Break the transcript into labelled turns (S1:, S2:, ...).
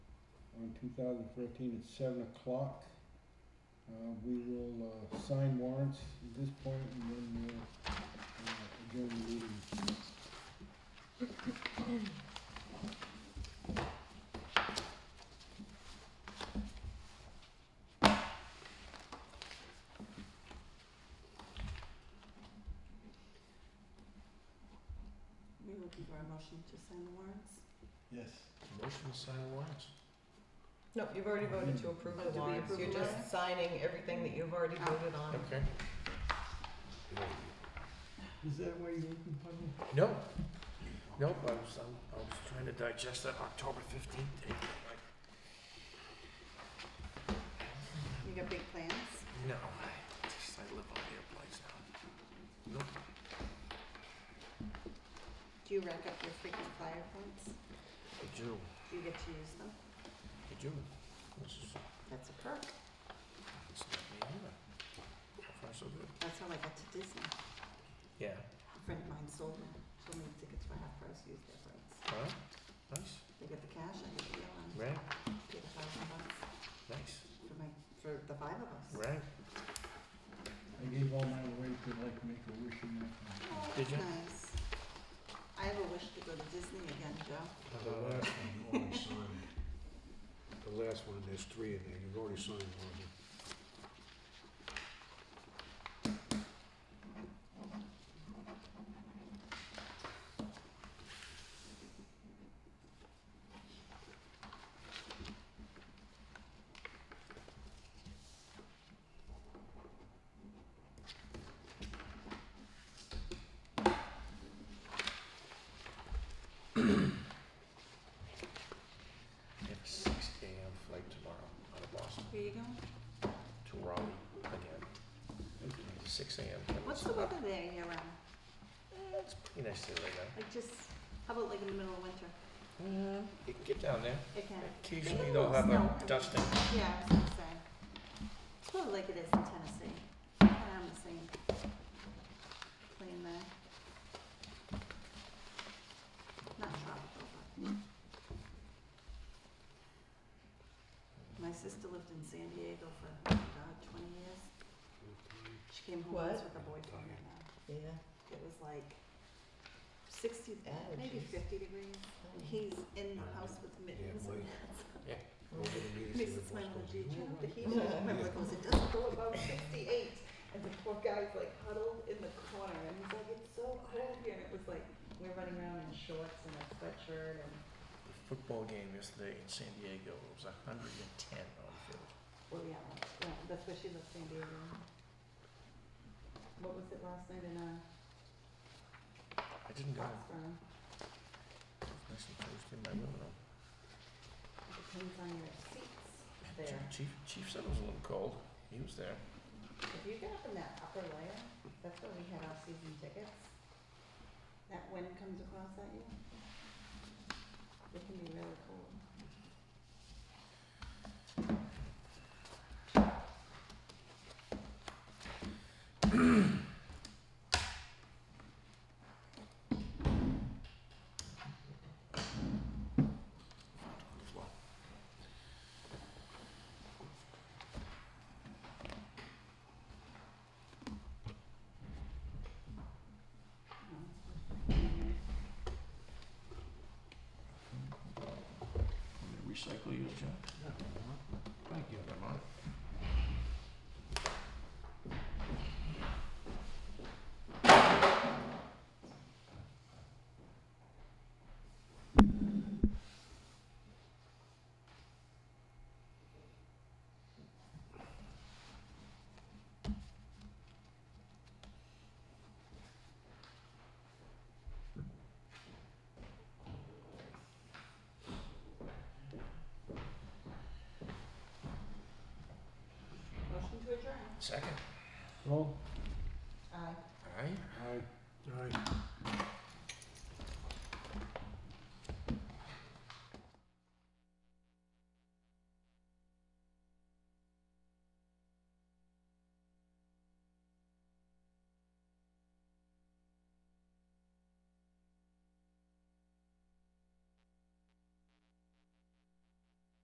S1: two thousand thirteen at seven o'clock. Uh, we will, uh, sign warrants at this point and then we'll, uh, adjourn the meeting.
S2: We will give our motion to sign the warrants.
S1: Yes.
S3: Motion to sign warrants.
S4: No, you've already voted to approve
S2: Oh, did
S4: the
S2: we
S4: warrants,
S2: approve
S4: you're
S2: the
S4: just
S2: warrants?
S4: signing everything that you've already voted on.
S3: Okay.
S1: Is that why you open public?
S3: No, nope, I was, I'm- I was trying to digest that October fifteenth date. like,
S2: You got big plans?
S3: No, I just, I live on their place now. Nope.
S2: Do you rack up your freaking flyer points?
S3: I do,
S2: Do you get to use them?
S3: I do. This is,
S2: That's a perk.
S3: it's not me either. So far, so good.
S2: That's how I got to Disney.
S3: Yeah.
S2: A friend of mine sold them, sold me tickets for half price, used their points.
S3: Huh? Nice,
S2: They get the cash, I get the deal, and
S3: right,
S2: paid a thousand bucks
S3: nice,
S2: for my, for the five of us.
S3: right.
S1: I gave all mine away to like make a wish and that.
S2: Oh,
S3: Did
S2: that's
S3: you?
S2: nice. I have a wish to go to Disney again, Joe.
S5: The last one, you already signed. The last one, there's three in there, you've already signed one of them.
S3: I have a six AM flight tomorrow out of Boston
S2: Where you going?
S3: to Raleigh again. Six AM.
S2: What's the weather there year round?
S3: Eh, It's pretty nice today right now.
S2: Like just, how about like in the middle of winter?
S3: You can get down there.
S2: It can,
S3: Occasionally
S2: Maybe
S3: they'll
S2: we'll
S3: have
S2: snow.
S3: a dusting.
S2: yeah, I was gonna say. It's probably like it is in Tennessee. I'm the same. Plain there. Not tropical, but. My sister lived in San Diego for, oh my God, twenty years. She came home once
S4: What?
S2: with a boyfriend and uh,
S4: Yeah.
S2: it was like sixty,
S4: Oh,
S2: maybe
S4: jeez.
S2: fifty degrees. He's in the house with mittens
S5: Yeah, my-
S2: and hats.
S5: Over the meetings
S2: Makes
S5: in
S2: us smile at the
S5: Boston.
S2: beach, you know, the heat,
S4: Yeah.
S2: my brother goes, it doesn't go above sixty-eight, and the poor guy's like huddled in the corner, and he's like, it's so cold here, and it was like, we're running around in shorts and a sweatshirt, and,
S3: The football game yesterday in San Diego it was hundred and ten on the field.
S2: well, yeah, that's- yeah, that's where she lives, San Diego. What was it last night in, uh,
S3: I didn't go.
S2: Foxborough,
S3: Nice and toasty in my room though.
S2: it depends on your seats
S3: Chief-
S2: there,
S3: Chief, Chief said it was a little cold. He was there.
S2: if you get up in that upper layer, that's where we had our season tickets, that wind comes across at you, it can be really cold.
S3: On the floor. Recycle your junk. Thank you. I'm on it.
S2: Motion to adjourn.
S3: Second.
S1: Well,
S2: Aye.
S3: All right.
S1: I
S5: All right.